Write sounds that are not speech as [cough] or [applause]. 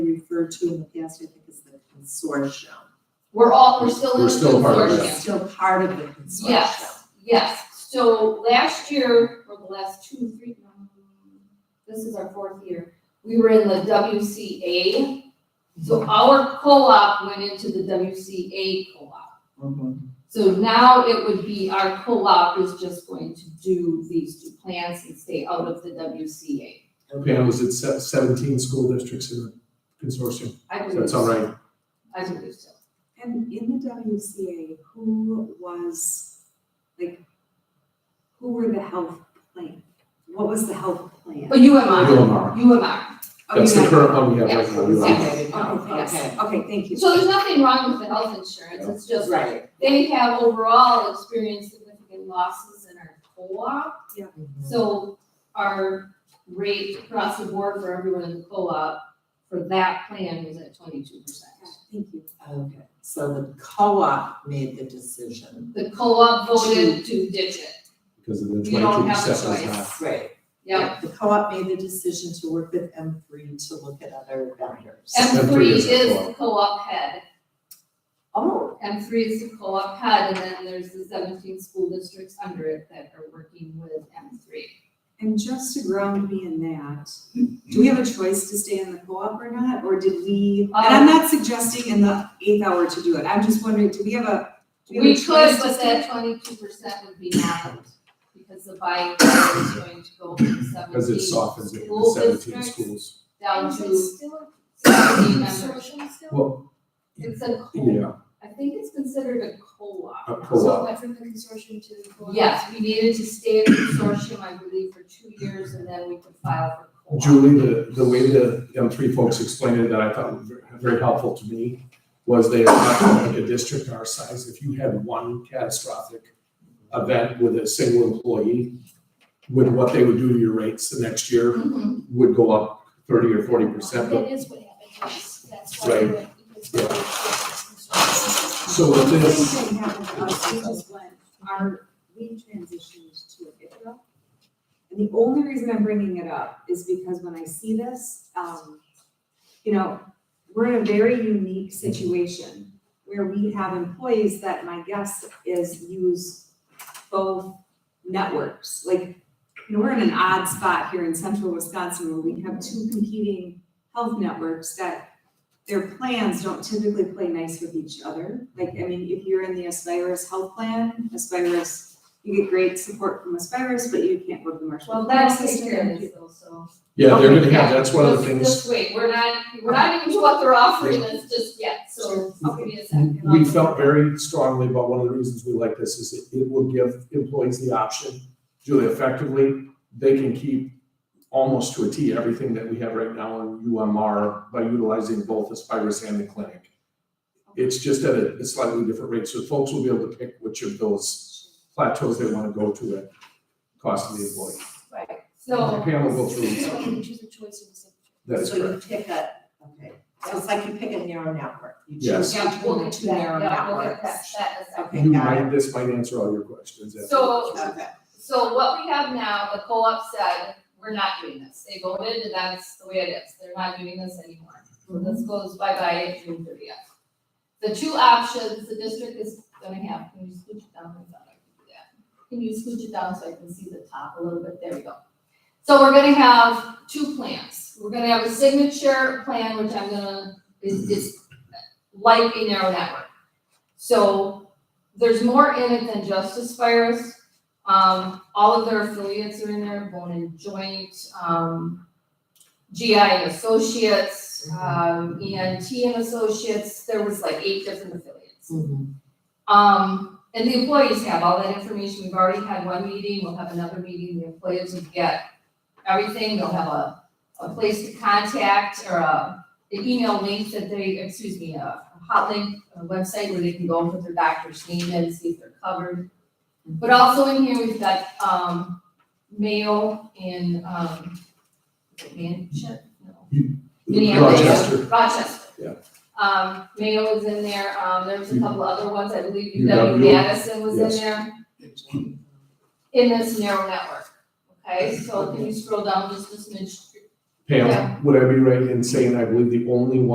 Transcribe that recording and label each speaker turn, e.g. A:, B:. A: referred to in the past, I think, as the consortium.
B: We're all, we're still in
C: We're
B: the
C: still part of
B: consortium.
C: that.
A: It's Still part of the consortium.
B: Yes, yes, so last year, or the last two, three, no, this is our fourth year, we were in the WCA.
C: Mm-hmm.
B: So our co-op went into the WCA co-op.
C: Mm-hmm.
A: Mhm.
B: So now it would be our co-op is just going to do these two plants and stay out of the WCA.
C: Okay, I was at se- seventeen school districts in the consortium,
B: I
C: so
B: believe
C: that's
B: so.
C: all right.
B: I believe so.
D: And in the WCA, who was, like, who were the health plan? What was the health plan?
B: But UMR,
C: UMR.
B: UMR.
D: Oh,
C: That's the
D: yeah.
C: current one we have right
B: Yes,
C: now. UMR.
B: yes.
A: Okay,
D: Oh,
A: okay.
D: yes, okay, thank you.
B: So there's nothing wrong with the health insurance, it's just
A: Right.
B: they have overall experienced significant losses in our co-op. Mm-hmm. So our rate across the board for everyone in the co-op for that plan was at twenty-two percent.
D: Thank you.
A: Okay, so the co-op made the decision.
B: The co-op voted to ditch it.
C: Because of the
B: You don't
C: twenty-two
B: have a
C: percent is
B: choice.
C: not.
A: Right.
B: Yep.
A: The co-op made the decision to work with M three to look at other vendors.
B: M
C: Every
B: three
C: is
B: is
C: the
B: the co-op head.
A: Oh,
B: M three is the co-op head, and then there's the seventeen school districts under it that are working with M three.
D: And just to ground me in that, do we have a choice to stay in the co-op or not, or did we? And I'm
B: Um,
D: not suggesting in the eighth hour to do it, I'm just wondering, do we have a? do have a
B: We could,
D: choice to
B: but
D: stay?
B: that twenty-two percent would be not, because the buy-in is going to go from
C: Because
B: seventeen
C: it softens it in
B: School
C: seventeen
B: districts.
C: schools.
B: down
E: Is it
B: to
E: still a
B: [coughs] seventeen members.
E: consortium still?
C: Well,
B: It's a co,
C: yeah, Uh,
B: I think it's considered a co-op.
C: a
E: So
C: co-op.
E: went from the consortium to the co-op?
B: Yes, we needed to stay in consortium, I believe, for two years, and then we could file for co-op.
C: Julie, the, the way the M three folks explained it that I thought was ver- very helpful to me was they, were talking like a district our size, if you had one catastrophic event with a single employee, with what they would do to your rates the next year
B: Mhm.
C: would go up thirty or forty percent, but
E: That is what happened, yes, that's why.
C: Right.
E: we went with the consortium.
C: So with this,
D: Same thing happened to us, we just went, our, we transitioned to ICRA. And the only reason I'm bringing it up is because when I see this, um, you know, we're in a very unique situation where we have employees that my guess is use both networks. Like, you know, we're in an odd spot here in central Wisconsin where we have two competing health networks that their plans don't typically play nice with each other. Like, I mean, if you're in the Aspirus health plan, Aspirus, you get great support from Aspirus, but you can't work the Marshall.
B: Well,
D: Plan
B: that's
D: system.
B: experience also.
C: yeah, they're gonna have,
B: Yeah,
C: that's one of the
B: just-
C: things,
B: Just wait, we're not, we're not even to what they're offering us just yet, so give me a second.
C: we felt very strongly about one of the reasons we like this is it, it will give employees the option. Julie, effectively, they can keep almost to a T everything that we have right now in UMR by utilizing both Aspirus and the clinic. It's just at a a slightly different rate, so folks will be able to pick which of those plateaus they wanna go to at cost of the employee.
B: Right, so,
C: Pam will go
E: So
C: through,
E: you choose a choice of something.
C: that is correct.
A: So you pick a, okay, so it's like you pick a narrow network. You
C: Yes.
A: choose
B: yeah, we'll
A: between the
B: get to
A: two
B: that,
A: narrow
B: yeah, we'll get to that,
A: networks.
B: that in a second.
A: Okay,
C: You
A: got it.
C: might, this might answer all your questions. after.
B: So,
A: Okay.
B: So what we have now, the co-op said, we're not doing this. They voted and that's the way it is. They're not doing this anymore. So this goes bye-bye at June thirtieth. The two options the district is gonna have, can you scooch it down? I thought I could do that. Can you scooch it down so I can see the top a little bit? There we go. So we're gonna have two plans. We're gonna have a signature plan, which I'm gonna, is, is like a narrow network. So there's more in it than just Aspirus. Um, all of their affiliates are in there, Bone and Joint, um, GI and Associates, um, ENT and Associates, there was like eight different affiliates.
A: Mhm.
B: Um, and the employees have all that information, we've already had one meeting, we'll have another meeting, the employees will get everything, they'll have a, a place to contact, or a, an email link that they, excuse me, uh, a hot link, a website where they can go and put their doctor's name in, see if they're covered. But also in here, we've got, um, Mayo and, um, is it Manchester? No, Minneapolis.
C: Rochester,
B: Rochester.
C: Yeah. Mm-hmm.
B: Um, Mayo is in there, um, there's a couple other ones, I believe
C: UW.
B: UW Madison was in
C: Yes.
B: there,
A: Hmm.
B: in this narrow network. Okay, so can you scroll down just a smidge?
C: Pam,
B: Yeah.
C: would I be right in saying I believe the only one?